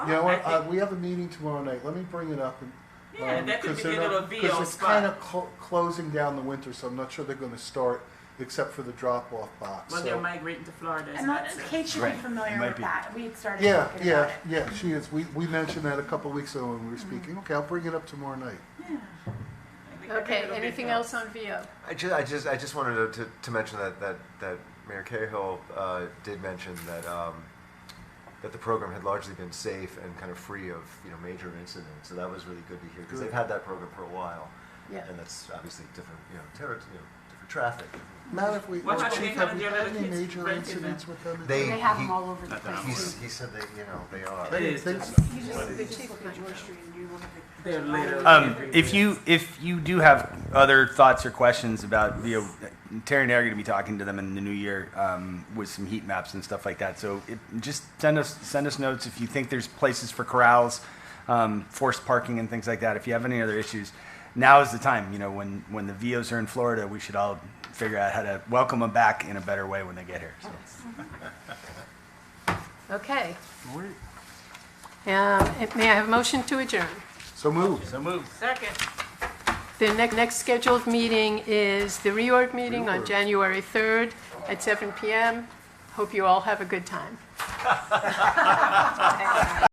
You know Oh, I what? Uh, think- we have a meeting tomorrow night. Let me bring it up. And, Yeah, um, that could 'cause be they're their not- little VO it's spot. kind of cl- closing down the winter, so I'm not sure they're going to start except for the drop off box. Well, so- they're migrating to Florida. And isn't not, that so? Kate should Right. be familiar Might with be. that. We had started yeah, talking about yeah, it. yeah. She is. We we mentioned that a couple weeks ago when we were speaking. Okay, I'll bring it up tomorrow night. Yeah. I think Okay, it'll be anything fun. else on VO? I just, I just, I just wanted to, to, to mention that, that, that Mayor Cahill uh, did mention that um, that the program had largely been safe and kind of free of you know major incidents. So that was really good to hear because they've had that program for a while, Yeah. and that's obviously different, you know, terri you know different traffic. Matt, if we What or about Chief, any have kind we of had other any kids major breaking incidents with them? They- They have He- them all over the Not that I'm He, place. s- he said that you know they are. I didn't It is think just- so. You What just, is the it? chief will be George Street and you will have the- They're literally Um, everywhere. if you if you do have other thoughts or questions about VO, Terry and I are going to be talking to them in the new year um, with some heat maps and stuff like that. So it, just send us send us notes if you think there's places for corrals, um, forced parking, and things like that. If you have any other issues, now is the time. You know, when when the VOs are in Florida, we should all figure out how to welcome them back in a better way when they get here. So. Okay. Um, it- May I have a motion to adjourn? So move. Second. The next, next scheduled meeting is the reorg meeting on Reorg. January 3rd at 7 PM. Hope you all have a good time.